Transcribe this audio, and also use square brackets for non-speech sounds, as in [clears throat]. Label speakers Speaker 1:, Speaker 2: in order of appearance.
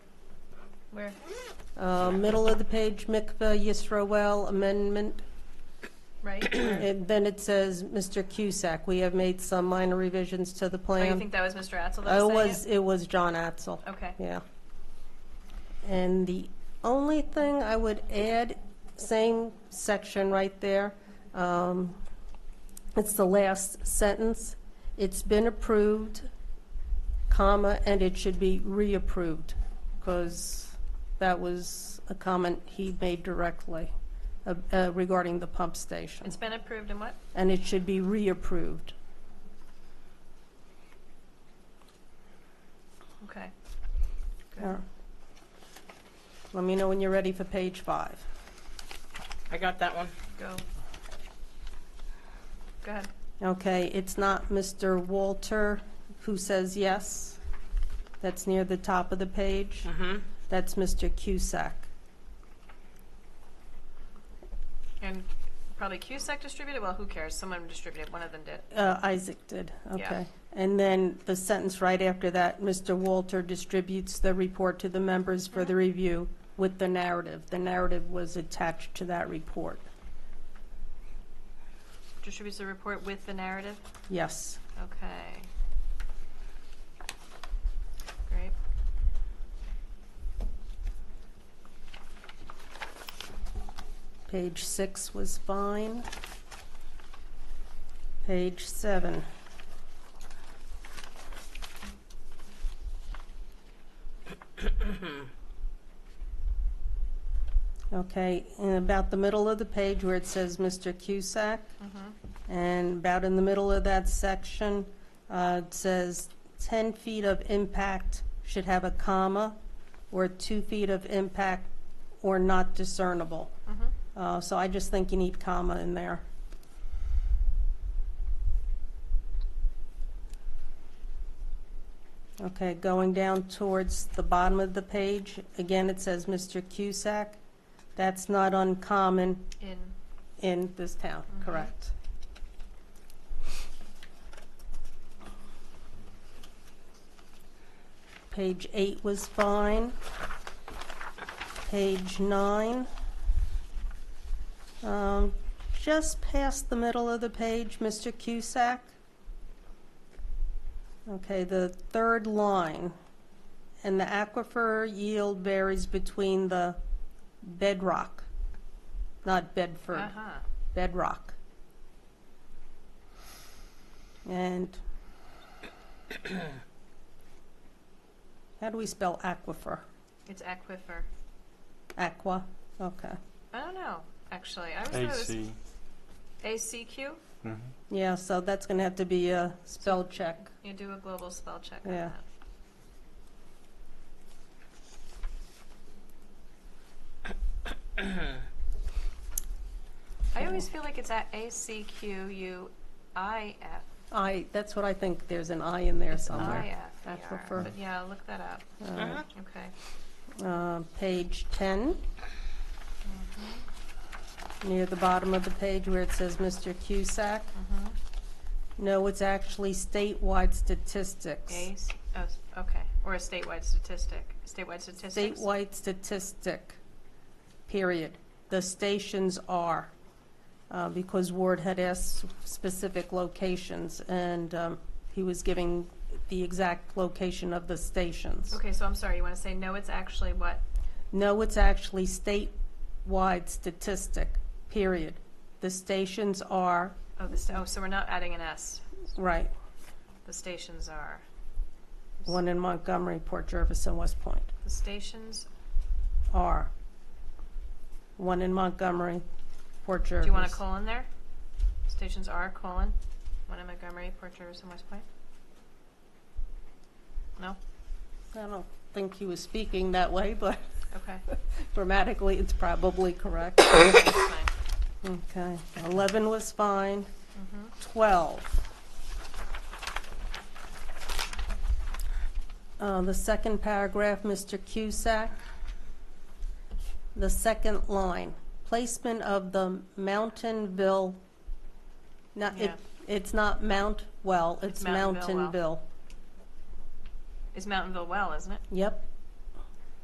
Speaker 1: Where?
Speaker 2: Uh, Middle of the page, Mikveh Yisroel amendment, [clears throat]
Speaker 1: Right? Where?
Speaker 2: and then it says, Mr. Cusack, we have made some minor revisions to the
Speaker 1: Oh,
Speaker 2: plan.
Speaker 1: you think that was Mr. Atzel that
Speaker 2: Uh, It
Speaker 1: was
Speaker 2: was,
Speaker 1: saying
Speaker 2: it was John Atzel.
Speaker 1: it? Okay.
Speaker 2: Yeah. And the only thing I would add, same section right there, um, it's the last sentence. It's been approved, comma, and it should be reapproved, because that was a comment he made directly uh, uh, regarding the pump station.
Speaker 1: It's been approved and what?
Speaker 2: And it should be reapproved.
Speaker 1: Okay. Good.
Speaker 2: Yeah. Let me know when you're ready for page five.
Speaker 3: I got that one.
Speaker 1: Go. Go ahead.
Speaker 2: Okay, it's not Mr. Walter who says yes. That's near the top of the page.
Speaker 3: Mm-hmm.
Speaker 2: That's Mr. Cusack.
Speaker 1: And probably Cusack distributed? Well, who cares? Someone distributed. One of them did.
Speaker 2: Uh, Isaac did,
Speaker 1: Yeah.
Speaker 2: okay. And then the sentence right after that, Mr. Walter distributes the report to the members for the review with the narrative. The narrative was attached to that report.
Speaker 1: Distributes the report with the narrative?
Speaker 2: Yes.
Speaker 1: Okay. Great.
Speaker 2: Page six was fine. Page seven. Okay, and about the middle of the page where it says Mr. Cusack, and about in the middle of that section, uh, it says 10 feet of impact should have a comma, or 2 feet of impact or not discernible. Uh, So I just think you need comma in there. Okay, going down towards the bottom of the page, again, it says Mr. Cusack. That's not uncommon
Speaker 1: In.
Speaker 2: in this town, correct? Page eight was fine. Page nine. Um, Just past the middle of the page, Mr. Cusack. Okay, the third line. And the aquifer yield varies between the bedrock, not Bedford
Speaker 1: Uh-huh.
Speaker 2: bedrock. And how do we spell aquifer?
Speaker 1: It's aquifer.
Speaker 2: Aqua, okay.
Speaker 1: I don't know, actually. I always thought it was
Speaker 4: AC.
Speaker 1: ACQ?
Speaker 2: Yeah, so that's gonna have to be a spell check.
Speaker 1: You do a global spell check on
Speaker 2: Yeah.
Speaker 1: that. I always feel like it's at A-C-Q-U-I-F,
Speaker 2: I, that's what I think, there's an I in there somewhere.
Speaker 1: I-F-E-R.
Speaker 2: Aquifer.
Speaker 1: E, But yeah, look that up.
Speaker 3: Uh-huh.
Speaker 1: Okay.
Speaker 2: Uh, Page 10. Near the bottom of the page where it says Mr. Cusack. No, it's actually statewide statistics.
Speaker 1: Ace, oh, s- okay, or a statewide statistic, statewide statistics.
Speaker 2: Statewide statistic, period. The stations are, uh, because Ward had asked specific locations, and um, he was giving the exact location of the stations.
Speaker 1: Okay, so I'm sorry, you want to say, no, it's actually what?
Speaker 2: No, it's actually statewide statistic, period. The stations are,
Speaker 1: Oh, the, sta- oh, so we're not adding an S,
Speaker 2: right,
Speaker 1: the stations are,
Speaker 2: one in Montgomery, Port Jervis, and West Point,
Speaker 1: the stations,
Speaker 2: are. One in Montgomery, Port Jervis.
Speaker 1: do you want a colon there? Stations are, colon, one in Montgomery, Port Jervis, and West Point? No?
Speaker 2: I don't think he was speaking that way, but
Speaker 1: Okay,
Speaker 2: grammatically, it's probably correct.
Speaker 1: that's fine.
Speaker 2: Okay, 11 was fine. 12. Uh, The second paragraph, Mr. Cusack. The second line, placement of the Mountainville, not, it-
Speaker 1: Yeah.
Speaker 2: it's not Mount Well, it's
Speaker 1: Mountainville Well.
Speaker 2: Mountainville.
Speaker 1: It's Mountainville Well, isn't it?
Speaker 2: Yep,